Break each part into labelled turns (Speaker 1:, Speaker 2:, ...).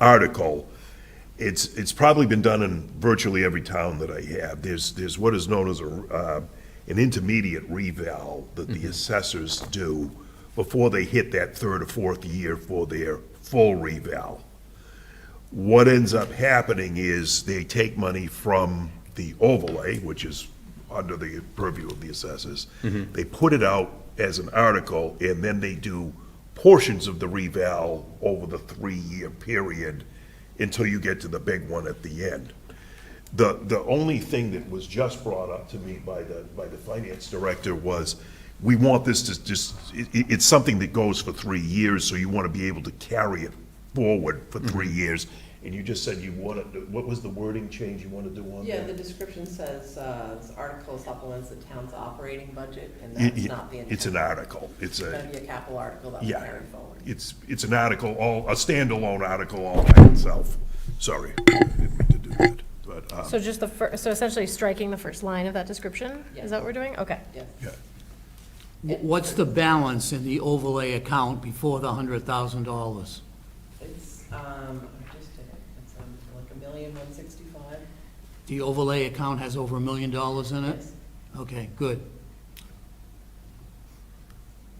Speaker 1: article, it's, it's probably been done in virtually every town that I have. There's, there's what is known as a, uh, an intermediate reval that the assessors do before they hit that third or fourth year for their full reval. What ends up happening is they take money from the overlay, which is under the purview of the assessors. They put it out as an article, and then they do portions of the reval over the three-year period until you get to the big one at the end. The, the only thing that was just brought up to me by the, by the finance director was, we want this to just, it, it- it's something that goes for three years, so you want to be able to carry it forward for three years. And you just said you wanted, to- what was the wording change you want to do on
Speaker 2: Yeah,
Speaker 1: that?
Speaker 2: the description says, uh, this article supplements the town's operating budget, and
Speaker 1: It-
Speaker 2: that's
Speaker 1: it-
Speaker 2: not the intent.
Speaker 1: It's an article. It's
Speaker 2: It's gonna
Speaker 1: a,
Speaker 2: be a capital article that will
Speaker 1: yeah.
Speaker 2: carry forward.
Speaker 1: It's, it's an article, all, a standalone article all by itself. Sorry, I didn't mean to do that, but, um,
Speaker 3: So just the fir, so essentially striking the first line of that description? Is that what we're doing? Okay.
Speaker 2: Yes.
Speaker 1: yeah.
Speaker 4: Wh- What's the balance in the overlay account before the hundred thousand dollars?
Speaker 2: It's, um, I just did it, it's um, like a million one sixty-five.
Speaker 4: The overlay account has over a million dollars in it?
Speaker 2: Yes.
Speaker 4: Okay, good.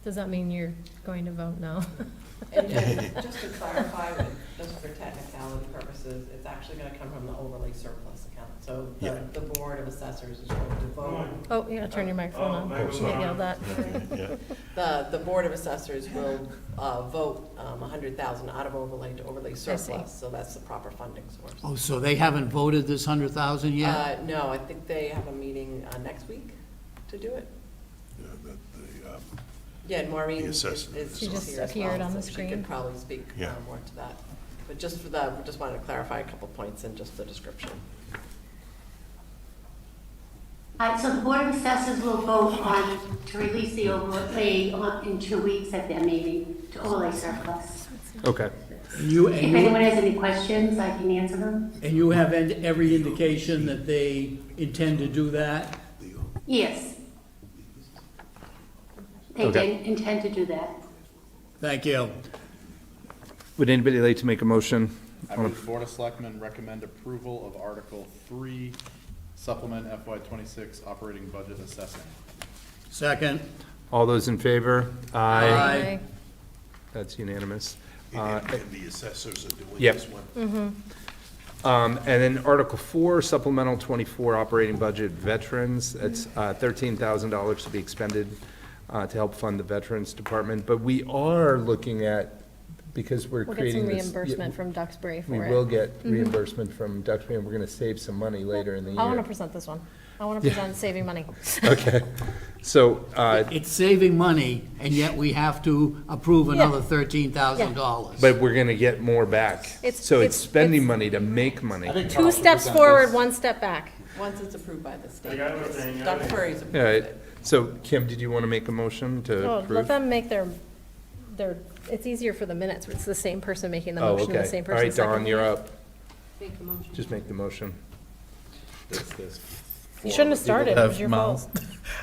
Speaker 3: Does that mean you're going to vote no?
Speaker 2: And just- just to clarify, with- just for technicality purposes, it's actually gonna come from the overlay surplus account. So
Speaker 1: Yeah.
Speaker 2: the, the board of assessors is going to vote,
Speaker 3: Oh, you gotta turn your microphone on.
Speaker 1: Oh, sorry.
Speaker 3: Get yelled at.
Speaker 1: Yeah.
Speaker 2: the, the board of assessors will, uh, vote, um, a hundred thousand out of overlay to overlay surplus. So that's the proper funding source.
Speaker 4: Oh, so they haven't voted this hundred thousand yet?
Speaker 2: Uh, no, I think they have a meeting, uh, next week to do it.
Speaker 1: Yeah, that- the, um,
Speaker 2: Yeah, and Maureen
Speaker 1: The
Speaker 2: is
Speaker 1: assessment
Speaker 2: is
Speaker 1: She
Speaker 2: here
Speaker 3: just
Speaker 2: as well.
Speaker 3: appeared on
Speaker 2: so
Speaker 3: the
Speaker 2: She
Speaker 3: screen.
Speaker 2: could probably speak uh,
Speaker 1: Yeah.
Speaker 2: more to that. But just for that, we just wanted to clarify a couple points in just the description.
Speaker 5: All right, so the Board of Assessors will vote on to release the overlay on- in two weeks at their meeting to overlay surplus.
Speaker 6: Okay.
Speaker 4: And you,
Speaker 5: If
Speaker 4: and
Speaker 5: anyone has any questions, I can answer them.
Speaker 4: you, and you have en- every indication that they intend to do that?
Speaker 5: Yes. They
Speaker 6: Okay.
Speaker 5: did intend to do that.
Speaker 4: Thank you.
Speaker 6: Would anybody like to make a motion?
Speaker 7: I move the Board of Selectmen recommend approval of Article Three, supplement FY twenty-six operating budget assessing.
Speaker 4: Second?
Speaker 6: All those in favor?
Speaker 4: Aye.
Speaker 6: That's unanimous. Uh,
Speaker 1: And and the assessors are doing
Speaker 6: Yep.
Speaker 1: this one.
Speaker 6: Um, And then Article 4, Supplemental 24 Operating Budget Veterans, that's uh, $13,000 to be expended uh, to help fund the Veterans Department. But we are looking at, because we're
Speaker 3: We'll get some
Speaker 6: creating this.
Speaker 3: reimbursement from Duxbury
Speaker 6: We
Speaker 3: for
Speaker 6: will
Speaker 3: it. Mm-hmm.
Speaker 6: get reimbursement from Duxbury, and we're going to save some money later in the year.
Speaker 3: I wanna present this one. I wanna present saving money.
Speaker 6: Okay, so, uh,
Speaker 4: It's saving money, and yet we have to approve another thirteen thousand dollars.
Speaker 6: but we're gonna get more back.
Speaker 3: It's-
Speaker 6: So
Speaker 3: it's-
Speaker 6: it's spending
Speaker 3: it's-
Speaker 6: money to make money.
Speaker 3: Two steps forward, one step back.
Speaker 2: Once it's approved by the state,
Speaker 8: got what I'm saying, yeah.
Speaker 2: Dr. Curry's approved
Speaker 6: All right,
Speaker 2: it.
Speaker 6: so Kim, did you wanna make a motion to
Speaker 3: Oh,
Speaker 6: approve?
Speaker 3: Let them make their, their, it's easier for the minutes, it's the same person making the
Speaker 6: Oh,
Speaker 3: motion, and
Speaker 6: okay.
Speaker 3: the same
Speaker 6: All right,
Speaker 3: person
Speaker 6: Don,
Speaker 3: seconding.
Speaker 6: you're up.
Speaker 5: Make a motion.
Speaker 6: Just make the motion.
Speaker 3: You shouldn't have started, it was your fault.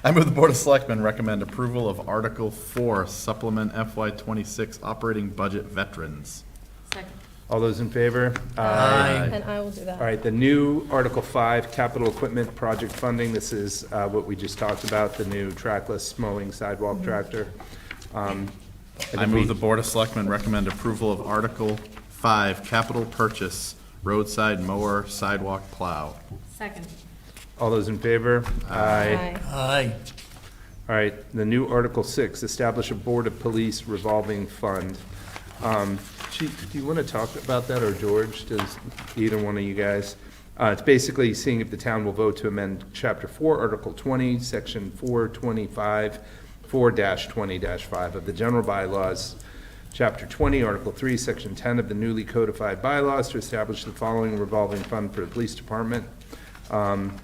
Speaker 7: I move the Board of Selectmen recommend approval of Article Four, supplement FY twenty-six operating budget veterans.
Speaker 6: All those in favor?
Speaker 4: Aye.
Speaker 3: And I will do that.
Speaker 6: All right, the new Article 5, capital equipment project funding, this is uh, what we just talked about, the new trackless mowing sidewalk tractor. Um, and
Speaker 7: I
Speaker 6: if we-
Speaker 7: move the Board of Selectmen recommend approval of Article Five, capital purchase roadside mower sidewalk plow.
Speaker 5: Second.
Speaker 6: All those in favor?
Speaker 3: Aye.
Speaker 4: Aye.
Speaker 6: All right, the new Article 6, establish a Board of Police revolving fund. Um, Chief, do you want to talk about that, or George, does either one of you guys? Uh, It's basically seeing if the town will vote to amend Chapter 4, Article 20, Section 425, 4-20-5 of the general bylaws, Chapter 20, Article 3, Section 10 of the newly codified bylaws to establish the following revolving fund for the police department. Um,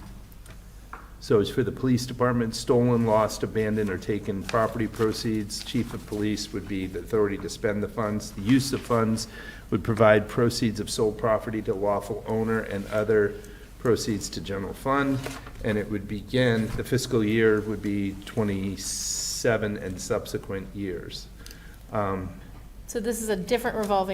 Speaker 6: so it's for the police department, stolen, lost, abandoned, or taken property proceeds. Chief of police would be the authority to spend the funds. The use of funds would provide proceeds of sold property to lawful owner and other proceeds to general fund. And it would begin, the fiscal year would be twenty-seven and subsequent years. Um,
Speaker 3: So this is a different revolving